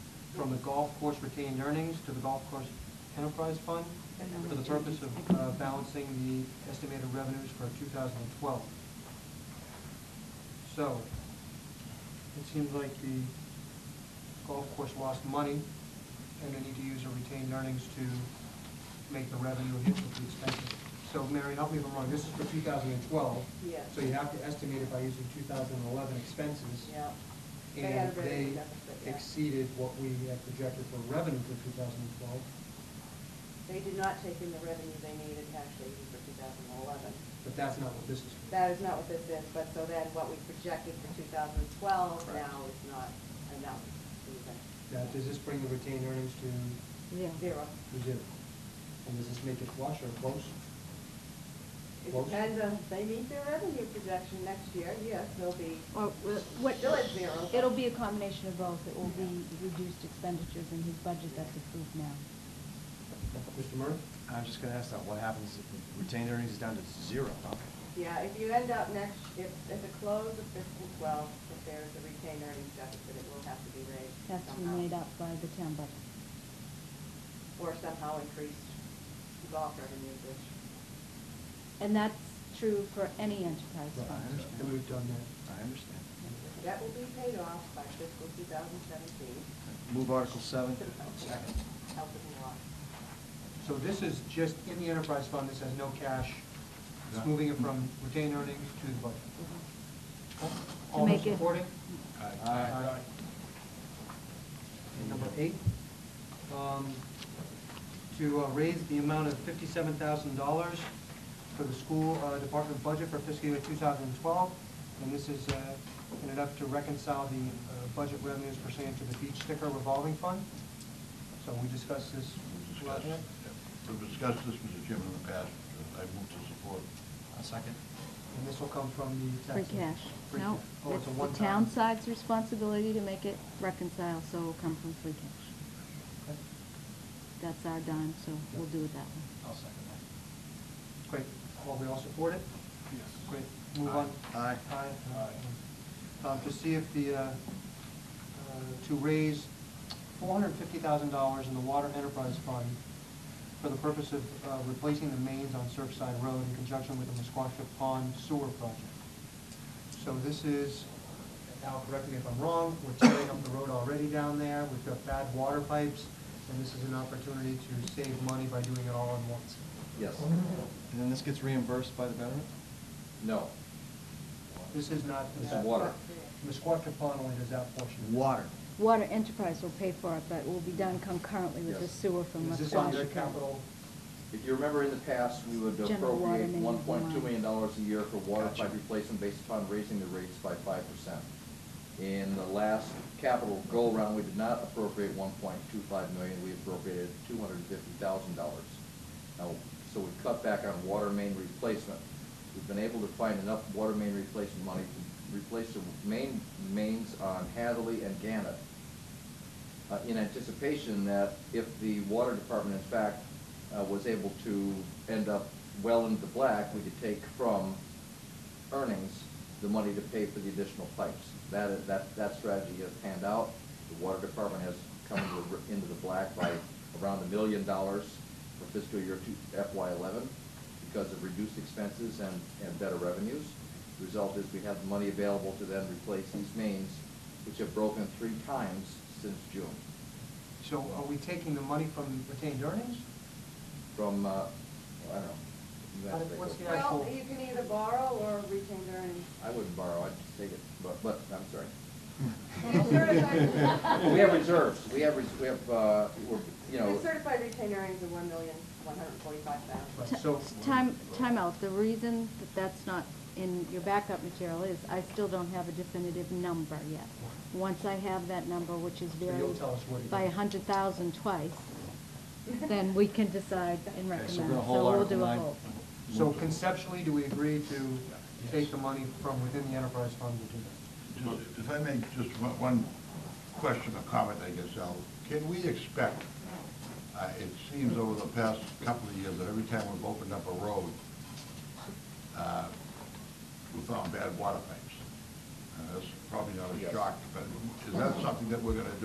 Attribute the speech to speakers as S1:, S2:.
S1: from the golf course retained earnings to the golf course enterprise fund for the purpose of uh, balancing the estimated revenues for 2012. So, it seems like the golf course lost money, and they need to use their retained earnings to make the revenue hit with the expenses. So Mary, help me if I'm wrong, this is for 2012.
S2: Yes.
S1: So you have to estimate it by using 2011 expenses.
S2: Yeah. They had a
S1: And
S2: very
S1: they
S2: good deficit, yeah.
S1: exceeded what we had projected for revenue for 2012.
S2: They did not take in the revenue they needed actually for 2011.
S1: But that's not what this is for.
S2: That is not what this is, but so then what we projected for 2012
S1: Correct.
S2: now is not enough even.
S1: Now, does this bring the retained earnings to
S3: Yeah.
S2: Zero.
S1: to zero? And does this make it flush or close?
S2: It
S1: Close.
S2: depends on, if they meet their revenue projection next year, yes, they'll be,
S3: Or will- what?
S2: Still at zero.
S3: It'll be a combination of both. It will be reduced expenditures in his budget that's approved now.
S1: Mr. Murray?
S4: I'm just gonna ask that, what happens if retained earnings is down to zero? huh?
S2: yeah, if you end up next, if, at the close of fiscal 12, if there's a retained earnings deficit, it will have to be raised
S3: Has to be
S2: somehow.
S3: made up by the town budget.
S2: Or somehow increased golf revenue, which,
S3: And that's true for any enterprise
S1: Right,
S3: fund.
S4: understand.
S1: And we've done
S4: I understand.
S2: that will be paid off by fiscal 2017.
S4: Move Article seven.
S2: Help them a lot.
S1: that. So this is just in the enterprise fund, this has no cash. It's
S4: No.
S1: moving it from retained earnings to the budget.
S3: To
S2: Mm-hmm.
S1: All those
S3: make it-
S1: supporting?
S4: Aye.
S1: And Number eight, um, to uh, raise the amount of fifty-seven thousand dollars for the school uh, department budget for fiscal year two thousand and twelve. And this is, uh, in an effort to reconcile the uh, budget revenues pertaining to the beach sticker revolving fund. So we discussed this
S5: We've
S1: last
S5: discussed-
S1: night.
S5: yeah. We've discussed this, Mr. Chairman, in the past. I move to support.
S4: A second.
S1: And this will come from the
S3: Free
S1: tax.
S3: cash.
S1: Free
S3: No,
S1: cash. Oh,
S3: it's
S1: a
S3: the
S1: one-time.
S3: town side's responsibility to make it reconcile, so it'll come from free cash.
S1: Okay.
S3: That's our dime, so we'll do it that way.
S4: I'll second that.
S1: Great. All, we all support it?
S5: Yes.
S1: Great, move on.
S4: Aye.
S1: Aye. Um, To see if the, uh, uh, to raise $450,000 in the Water Enterprise Fund for the purpose of uh, replacing the mains on Surfside Road in conjunction with the Musquashnet Pond Sewer Project. So this is, Al, correct me if I'm wrong, we're tearing up the road already down there, we've got bad water pipes, and this is an opportunity to save money by doing it all at once.
S6: Yes.
S4: And then this gets reimbursed by the government?
S6: No.
S1: This is not.
S6: This is water.
S1: Musquashnet Pond only does that portion.
S4: Water.
S3: Water enterprise will pay for it, but it will be done concurrently with the
S6: Yes.
S3: sewer from
S1: Is
S3: West
S1: this on their
S3: Washington.
S1: capital?
S6: If you remember in the past, we would
S3: General water
S6: appropriate
S3: main
S6: one point two
S3: line.
S6: million dollars a year for water
S4: Gotcha.
S6: pipe replacement based upon raising the rates by five percent. In the last capital go-round, we did not appropriate one point two five million, we appropriated two hundred and fifty thousand dollars. Now, so we cut back on water main replacement. We've been able to find enough water main replacement money to replace the main, mains on Hadley and Gannett. uh, in anticipation that if the water department, in fact, uh, was able to end up well into the black, we could take from earnings the money to pay for the additional pipes. That, is- that, that strategy has panned out. The water department has come into the r- into the black by around a million dollars for fiscal year two, FY eleven because of reduced expenses and, and better revenues. The Result is we have the money available to then replace these mains, which have broken three times since June.
S1: So are we taking the money from retained earnings?
S6: From, uh, I don't know. you
S1: Uh,
S6: have to take
S1: what's
S6: it.
S1: the Yeah,
S2: Well,
S1: cool.
S2: you can either borrow or retain earnings.
S6: I wouldn't borrow, I'd just take it, but, but, I'm sorry.
S2: Well, certified-
S6: We have reserves, we have, res- we have, uh, we're, you know.
S2: The certified retained earnings of one million, one hundred and forty-five thousand.
S1: Right, so-
S3: Ti- Time, time out. The reason that that's not in your backup material is I still don't have a definitive number yet. Once I have that number, which is
S1: So you'll
S3: varied
S1: tell us what it
S3: by a
S1: is.
S3: hundred thousand twice, then we can decide and
S4: Okay,
S3: recommend.
S4: so we're gonna hold
S3: we'll
S4: Article
S3: do a
S4: nine.
S3: hold.
S1: So conceptually, do we agree to take the money from within the enterprise fund to do that?
S5: Just- If I may, just one- one question or comment, I guess, Al. Can we expect, uh, it seems over the past couple of years, that every time we've opened up a road, uh, we found bad water pipes? Uh, That's probably not a
S6: Yes.
S5: shock, but is that something that we're going to do?